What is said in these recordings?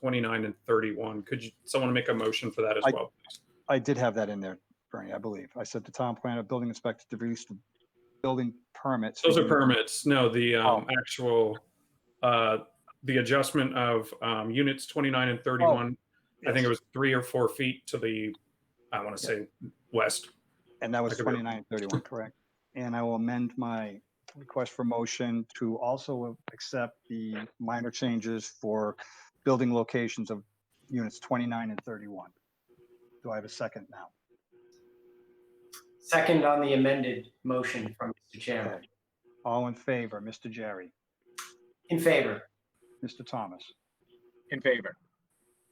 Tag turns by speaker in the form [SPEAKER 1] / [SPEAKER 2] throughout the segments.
[SPEAKER 1] 29 and 31. Could you, someone make a motion for that as
[SPEAKER 2] I-
[SPEAKER 1] well? please?
[SPEAKER 2] I did have that in there, Bernie, I believe. I said the town planner, building inspector, to release the building permits.
[SPEAKER 1] Those are permits. No, the um, actual, uh, the adjustment of um, units 29 and 31. I think it was three or four feet to the, I want to say west.
[SPEAKER 2] And that was
[SPEAKER 1] I could be-
[SPEAKER 2] twenty-nine thirty-one, correct? And I will amend my request for motion to also accept the minor changes for building locations of units twenty-nine and thirty-one. Do I have a second now?
[SPEAKER 3] Second on the amended motion from Mr. Chairman.
[SPEAKER 2] All in favor, Mr. Jerry,
[SPEAKER 3] In favor?
[SPEAKER 2] Mr. Thomas?
[SPEAKER 4] In favor.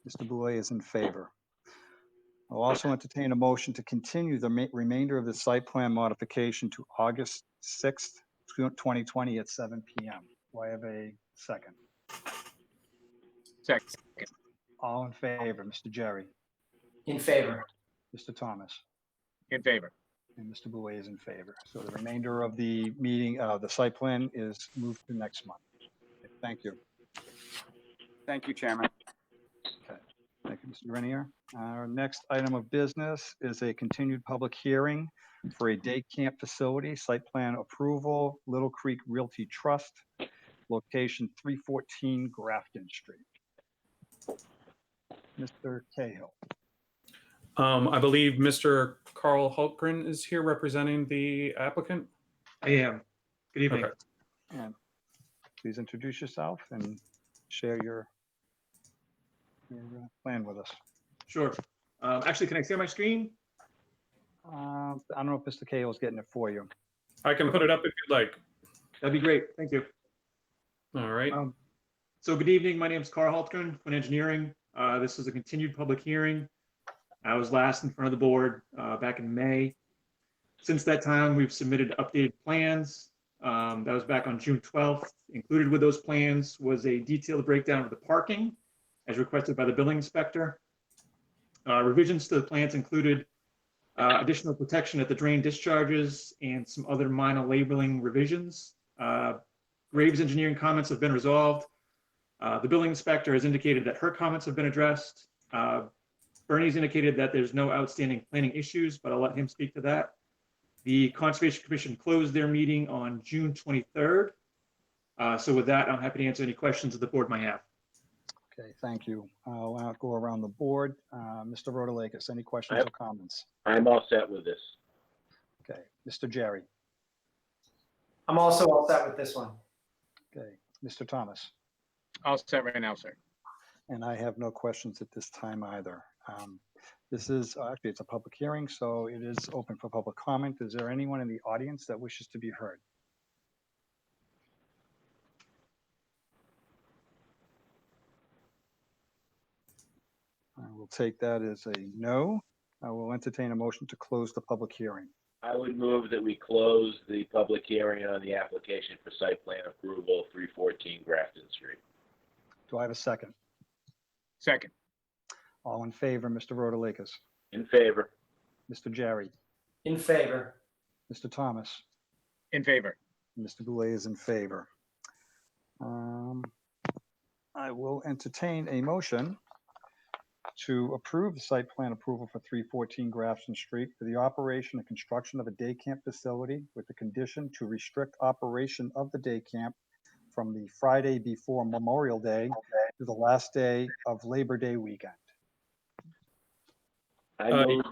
[SPEAKER 2] Mr. Boulay is in favor. I'll also entertain a motion to continue the ma- remainder of the site plan modification to August 6th, tw- 2020 at seven PM. Do I have a second?
[SPEAKER 4] Second.
[SPEAKER 2] All in favor, Mr. Jerry,
[SPEAKER 3] In favor?
[SPEAKER 2] Mr. Thomas,
[SPEAKER 4] In favor.
[SPEAKER 2] and Mr. Boulay is in favor. So the remainder of the meeting, uh, the site plan is moved to next month. Thank you.
[SPEAKER 5] Thank you, Chairman.
[SPEAKER 2] Thank you, Mr. Grenier. Our next item of business is a continued public hearing for a day camp facility, site plan approval, Little Creek Realty Trust, location 314 Grafton Street. Mr. Cahill,
[SPEAKER 1] Um, I believe Mr. Carl Hultgren is here representing the applicant.
[SPEAKER 6] I am. Good evening.
[SPEAKER 1] Okay.
[SPEAKER 2] and please introduce yourself and share your your uh, plan with us.
[SPEAKER 6] Sure. Um, Actually, can I see my screen?
[SPEAKER 2] Uh, I don't know if Mr. Cahill is getting it for you.
[SPEAKER 1] I can put it up if you'd like.
[SPEAKER 6] That'd be great. Thank you.
[SPEAKER 1] All right.
[SPEAKER 6] Um, So good evening. My name is Carl Haltgren, Quinn Engineering. Uh, This is a continued public hearing. I was last in front of the board uh, back in May. Since that time, we've submitted updated plans. Um, That was back on June 12th. Included with those plans was a detailed breakdown of the parking as requested by the building inspector. Uh, Revisions to the plans included uh, additional protection at the drain discharges and some other minor labeling revisions. Uh, Graves engineering comments have been resolved. Uh, The building inspector has indicated that her comments have been addressed. Uh, Bernie's indicated that there's no outstanding planning issues, but I'll let him speak to that. The Conservation Commission closed their meeting on June 23rd. Uh, So with that, I'm happy to answer any questions that the board might have.
[SPEAKER 2] Okay, thank you. I'll now go around the board. Uh, Mr. Rotalakis, any questions
[SPEAKER 7] Yep.
[SPEAKER 2] or comments?
[SPEAKER 7] I'm all set with this.
[SPEAKER 2] Okay, Mr. Jerry,
[SPEAKER 3] I'm also all set with this one.
[SPEAKER 2] okay, Mr. Thomas,
[SPEAKER 4] All set right now, sir.
[SPEAKER 2] and I have no questions at this time either. Um, This is, uh, actually, it's a public hearing, so it is open for public comment. Is there anyone in the audience that wishes to be heard? I will take that as a no. I will entertain a motion to close the public hearing.
[SPEAKER 7] I would move that we close the public hearing on the application for site plan approval, 314 Grafton Street.
[SPEAKER 2] Do I have a second?
[SPEAKER 4] Second.
[SPEAKER 2] All in favor, Mr. Rotalakis,
[SPEAKER 7] In favor?
[SPEAKER 2] Mr. Jerry,
[SPEAKER 3] In favor?
[SPEAKER 2] Mr. Thomas,
[SPEAKER 4] In favor.
[SPEAKER 2] and Mr. Boulay is in favor. Um, I will entertain a motion to approve the site plan approval for 314 Grafton Street for the operation and construction of a day camp facility with the condition to restrict operation of the day camp from the Friday before Memorial Day to the last day of Labor Day weekend.
[SPEAKER 7] I
[SPEAKER 1] Uh,
[SPEAKER 7] move,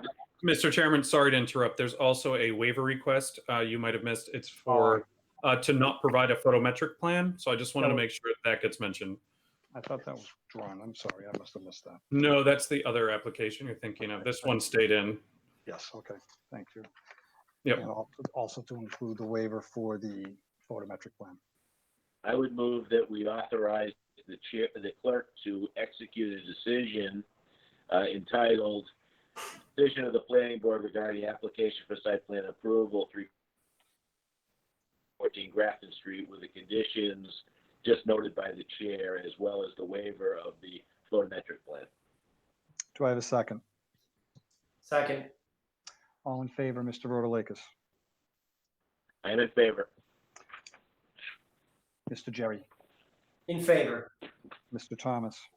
[SPEAKER 1] Mr. Chairman, sorry to interrupt. There's also a waiver request uh, you might have missed. It's for uh, to not provide a photometric plan. So I just wanted to
[SPEAKER 2] Oh.
[SPEAKER 1] make sure that gets mentioned.
[SPEAKER 2] I thought that was drawn. I'm sorry, I must have missed that.
[SPEAKER 1] No, that's the other application you're thinking of. This one stayed in.
[SPEAKER 2] Yes, okay, thank you.
[SPEAKER 1] Yep.
[SPEAKER 2] And al- also to include the waiver for the photometric plan.
[SPEAKER 7] I would move that we authorize the chair, the clerk to execute a decision uh, entitled Decision of the Planning Board regarding the application for site plan approval, 314 Grafton Street with the conditions just noted by the chair as well as the waiver of the photometric plan.
[SPEAKER 2] Do I have a second?
[SPEAKER 3] Second?
[SPEAKER 2] All in favor, Mr. Rotalakis?
[SPEAKER 7] I am in favor.
[SPEAKER 2] Mr. Jerry?
[SPEAKER 3] In favor?
[SPEAKER 2] Mr. Thomas?